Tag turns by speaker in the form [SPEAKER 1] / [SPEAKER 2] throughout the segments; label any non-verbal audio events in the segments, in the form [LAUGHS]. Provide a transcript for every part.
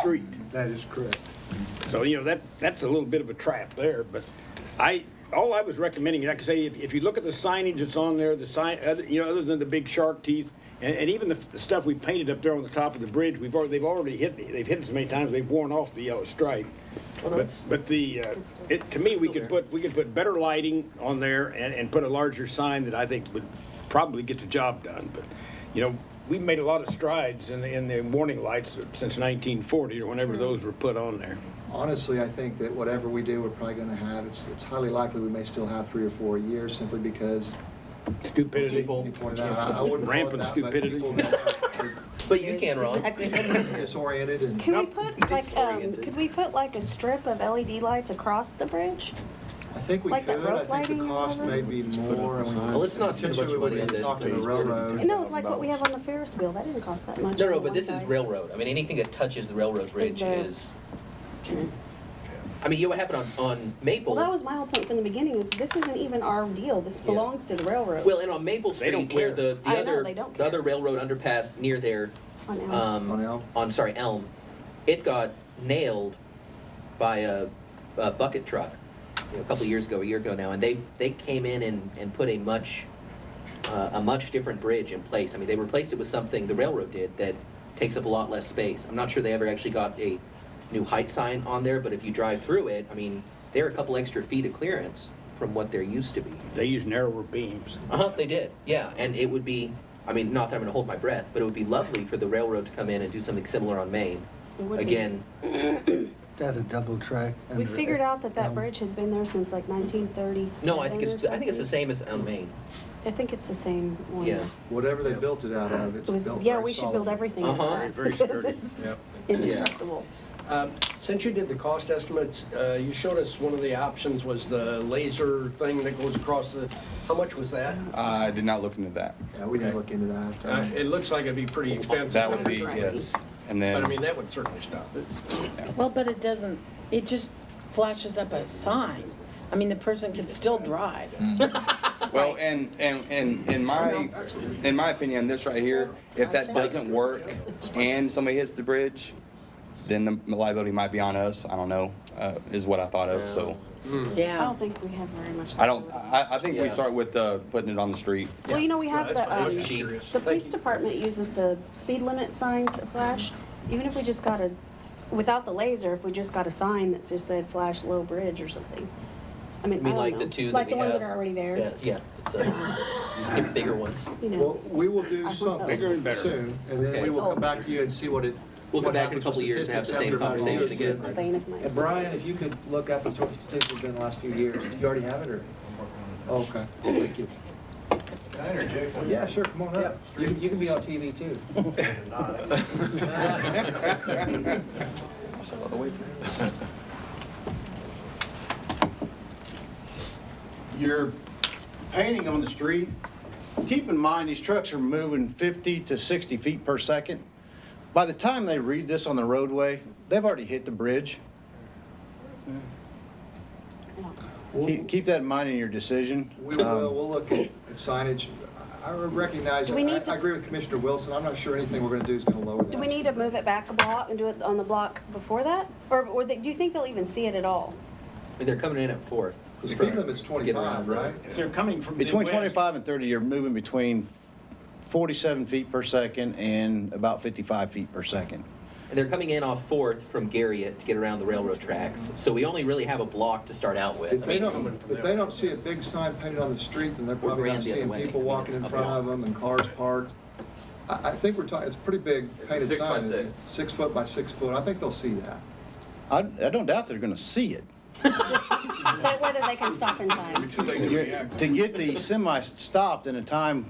[SPEAKER 1] street.
[SPEAKER 2] That is correct.
[SPEAKER 1] So, you know, that, that's a little bit of a trap there, but I, all I was recommending, like I say, if, if you look at the signage that's on there, the sign, other- you know, other than the big shark teeth, and, and even the, the stuff we painted up there on the top of the bridge, we've already, they've already hit, they've hit it so many times, they've worn off the yellow stripe. But, but the, uh, it, to me, we could put, we could put better lighting on there and, and put a larger sign that I think would probably get the job done, but, you know, we've made a lot of strides in, the in the warning lights since nineteen forty, or whenever those were put on there.
[SPEAKER 3] Honestly, I think that whatever we do, we're probably going to have, it's, it's highly likely we may still have three or four years simply because
[SPEAKER 1] Stupidity.
[SPEAKER 3] you pointed out, I- I wouldn't call it
[SPEAKER 1] Rampant
[SPEAKER 3] that, but
[SPEAKER 1] stupidity.
[SPEAKER 3] people that are
[SPEAKER 4] But you can, Ron.
[SPEAKER 3] disoriented and.
[SPEAKER 5] Can we
[SPEAKER 1] Nope.
[SPEAKER 5] put like, um,
[SPEAKER 4] Disoriented.
[SPEAKER 5] could we put like a strip of LED lights across the bridge?
[SPEAKER 3] I think we
[SPEAKER 5] Like
[SPEAKER 3] could,
[SPEAKER 5] that rope
[SPEAKER 3] I think
[SPEAKER 5] lighting
[SPEAKER 3] the
[SPEAKER 5] and
[SPEAKER 3] cost
[SPEAKER 5] all
[SPEAKER 3] may
[SPEAKER 5] that?
[SPEAKER 3] be more. and we-
[SPEAKER 4] Well, let's not spend
[SPEAKER 3] potentially
[SPEAKER 4] much
[SPEAKER 3] we
[SPEAKER 4] money
[SPEAKER 3] would
[SPEAKER 4] on this
[SPEAKER 3] Talk to
[SPEAKER 4] thing.
[SPEAKER 3] the railroad.
[SPEAKER 5] No, like what we have on the Ferris wheel, that didn't cost that much.
[SPEAKER 4] No,
[SPEAKER 5] for
[SPEAKER 4] no,
[SPEAKER 5] one
[SPEAKER 4] but this is
[SPEAKER 5] guy.
[SPEAKER 4] railroad. I mean, anything that touches the railroad bridge
[SPEAKER 5] there-
[SPEAKER 4] is. I mean, you know what happened on, on Maple?
[SPEAKER 5] Well, that was my whole point from the beginning, is this isn't even our deal, this belongs to the railroad.
[SPEAKER 4] Well, and on Maple
[SPEAKER 1] They don't
[SPEAKER 4] Street, where
[SPEAKER 1] care.
[SPEAKER 4] the, the
[SPEAKER 5] I know,
[SPEAKER 4] other,
[SPEAKER 5] they don't
[SPEAKER 4] the other
[SPEAKER 5] care.
[SPEAKER 4] railroad underpass near there,
[SPEAKER 5] On E Elm.
[SPEAKER 4] um,
[SPEAKER 3] On Elm?
[SPEAKER 4] on, sorry, Elm, it got nailed by a, a bucket truck, you know, a couple of years ago, a year ago now, and they, they came in and, and put a much, uh, a much different bridge in place. I mean, they replaced it with something the railroad did that takes up a lot less space. I'm not sure they ever actually got a new height sign on there, but if you drive through it, I mean, they're a couple extra feet of clearance from what there used to be.
[SPEAKER 1] They use narrower beams.
[SPEAKER 4] Uh huh. They did. Yeah, and it would be. I mean, not that I'm going to hold my breath, but it would be lovely for the railroad to come in and do something similar on Maine.
[SPEAKER 5] It would be.
[SPEAKER 4] Again,
[SPEAKER 6] That's a double track.
[SPEAKER 5] We
[SPEAKER 6] under-
[SPEAKER 7] uh,
[SPEAKER 5] figured out that that
[SPEAKER 6] um,
[SPEAKER 5] bridge had been there since like nineteen thirty-seven
[SPEAKER 4] no, I think it's I think it's the same as on Maine.
[SPEAKER 5] I think it's the same one.
[SPEAKER 4] Yeah.
[SPEAKER 3] Whatever they built it out of, it's
[SPEAKER 5] It was,
[SPEAKER 3] built
[SPEAKER 5] yeah,
[SPEAKER 3] very
[SPEAKER 5] we should build
[SPEAKER 3] solidly.
[SPEAKER 5] everything out of
[SPEAKER 4] Uh-huh.
[SPEAKER 5] that. [LAUGHS]
[SPEAKER 1] Very
[SPEAKER 5] because
[SPEAKER 1] sturdy.
[SPEAKER 5] it's
[SPEAKER 7] Yep.
[SPEAKER 5] Indestructible.
[SPEAKER 7] Um, Since you did the cost estimates, uh, you showed us one of the options was the laser thing that goes across the, how much was that?
[SPEAKER 8] I did not look into that.
[SPEAKER 3] Yeah, we didn't
[SPEAKER 7] Okay.
[SPEAKER 3] look into that.
[SPEAKER 7] Uh,
[SPEAKER 3] Um,
[SPEAKER 7] It looks like it'd be pretty expensive.
[SPEAKER 8] That would be,
[SPEAKER 5] Pricey.
[SPEAKER 8] yes. And
[SPEAKER 7] But I mean,
[SPEAKER 8] then,
[SPEAKER 7] that would certainly stop it.
[SPEAKER 9] Well, but it doesn't, it just flashes up a sign. I mean, the person can still drive.
[SPEAKER 8] well, and, and, and in my, in my opinion, this right here, if that doesn't work and somebody hits the bridge, then the liability might be on us. I don't know, uh, is what I thought of, so.
[SPEAKER 5] I
[SPEAKER 9] Yeah.
[SPEAKER 5] don't think we have very much.
[SPEAKER 8] I don't, I, I think we
[SPEAKER 4] Yeah.
[SPEAKER 8] start with, uh, putting it on the street.
[SPEAKER 5] Well, you know, we have
[SPEAKER 7] No, that's
[SPEAKER 5] the,
[SPEAKER 7] fine. I was
[SPEAKER 5] um,
[SPEAKER 7] just curious.
[SPEAKER 5] The
[SPEAKER 7] Thank
[SPEAKER 5] police
[SPEAKER 7] you.
[SPEAKER 5] department uses the speed limit signs that flash. Even if we just got a, without the laser, if we just got a sign that just said flash low bridge or something. I mean,
[SPEAKER 4] I mean,
[SPEAKER 5] I don't
[SPEAKER 4] like
[SPEAKER 5] know.
[SPEAKER 4] the two
[SPEAKER 5] Like
[SPEAKER 4] that
[SPEAKER 5] the
[SPEAKER 4] we
[SPEAKER 5] one
[SPEAKER 4] have.
[SPEAKER 5] that are already there,
[SPEAKER 4] Yeah, yeah. It's,
[SPEAKER 3] [LAUGHS]
[SPEAKER 4] uh, the bigger ones.
[SPEAKER 5] you
[SPEAKER 3] Well,
[SPEAKER 5] know.
[SPEAKER 3] we will do
[SPEAKER 5] I hope
[SPEAKER 1] Bigger and
[SPEAKER 3] something
[SPEAKER 1] better.
[SPEAKER 3] soon, and then
[SPEAKER 4] Okay.
[SPEAKER 3] we will come back to you and see what it,
[SPEAKER 4] We'll come
[SPEAKER 3] what
[SPEAKER 4] back in a
[SPEAKER 3] happens with
[SPEAKER 4] couple of years and have the
[SPEAKER 3] statistics
[SPEAKER 4] same
[SPEAKER 3] after about a
[SPEAKER 4] conversation
[SPEAKER 3] year.
[SPEAKER 4] again.
[SPEAKER 5] The bane of my
[SPEAKER 3] And Brian, if you
[SPEAKER 5] existence.
[SPEAKER 3] could look up and see what the statistics have been the last few years, you already have it, or? Okay, thank you. Yeah, sure, come on up. You, you can be on TV too.
[SPEAKER 10] you're painting on the street, keep in mind, these trucks are moving 50 to 60 feet per second. By the time they read this on the roadway, they've already hit the bridge. Keep keep that in mind in your decision.
[SPEAKER 3] We will,
[SPEAKER 10] Um,
[SPEAKER 3] we'll look at at signage. I I recognize,
[SPEAKER 5] Do
[SPEAKER 3] I,
[SPEAKER 5] we need to-
[SPEAKER 3] I agree with Commissioner Wilson, I'm not sure anything we're gonna do is gonna lower that.
[SPEAKER 5] Do we need to move it back a block and do it on the block before that? Or, or they- do you think they'll even see it at all?
[SPEAKER 4] I mean, they're coming in at fourth.
[SPEAKER 3] The speed limit's twenty-five,
[SPEAKER 4] around that.
[SPEAKER 3] right?
[SPEAKER 1] If they're coming from the
[SPEAKER 10] Between
[SPEAKER 1] west,
[SPEAKER 10] 25 and 30, you're moving between 47 feet per second and about 55 feet per second.
[SPEAKER 4] And they're coming in off fourth from Garriott to get around the railroad tracks. So we only really have a block to start out with.
[SPEAKER 3] If
[SPEAKER 4] I
[SPEAKER 3] they
[SPEAKER 4] mean,
[SPEAKER 3] don't, if they don't see a big sign painted on the street, then they're probably
[SPEAKER 4] grand
[SPEAKER 3] not
[SPEAKER 4] the other
[SPEAKER 3] seeing
[SPEAKER 4] way.
[SPEAKER 3] people walking in
[SPEAKER 4] It's
[SPEAKER 3] front
[SPEAKER 4] up
[SPEAKER 3] of them and cars parked. I, I think we're talking, it's a pretty big painted
[SPEAKER 4] six by
[SPEAKER 3] sign, isn't it?
[SPEAKER 4] six.
[SPEAKER 3] Six foot by six foot, I think they'll see that.
[SPEAKER 10] I I don't doubt they're going to see it.
[SPEAKER 5] Just, that whether they can stop in time.
[SPEAKER 10] You're- To get the semi stopped in a time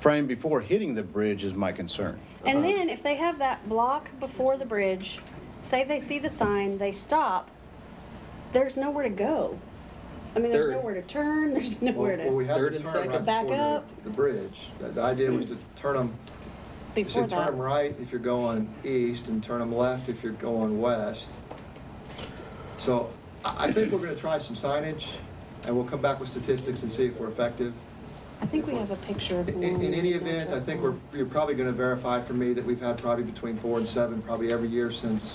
[SPEAKER 10] frame before hitting the bridge is my concern.
[SPEAKER 5] And then if they have that block before the bridge, say they see the sign, they stop, there's nowhere to go. I mean, there's
[SPEAKER 4] Third.
[SPEAKER 5] nowhere to turn, [LAUGHS] there's
[SPEAKER 3] Well,
[SPEAKER 5] nowhere
[SPEAKER 3] well, we
[SPEAKER 5] to,
[SPEAKER 3] have
[SPEAKER 4] Third
[SPEAKER 3] to
[SPEAKER 4] and
[SPEAKER 3] turn
[SPEAKER 4] second.
[SPEAKER 3] right
[SPEAKER 5] Back
[SPEAKER 3] before
[SPEAKER 5] up.
[SPEAKER 3] the, the bridge. The- The idea was to turn them, you
[SPEAKER 5] before
[SPEAKER 3] said turn
[SPEAKER 5] that.
[SPEAKER 3] them right if you're going east and turn them left if you're going west. So I, I think we're gonna try some signage and we'll come back with statistics and see if we're effective.
[SPEAKER 5] I think we have a picture of.
[SPEAKER 3] In,
[SPEAKER 5] one
[SPEAKER 3] in any
[SPEAKER 5] of the
[SPEAKER 3] event, I
[SPEAKER 5] Jackson.
[SPEAKER 3] think we're, you're probably gonna verify for me that we've had probably between four and seven, probably every year since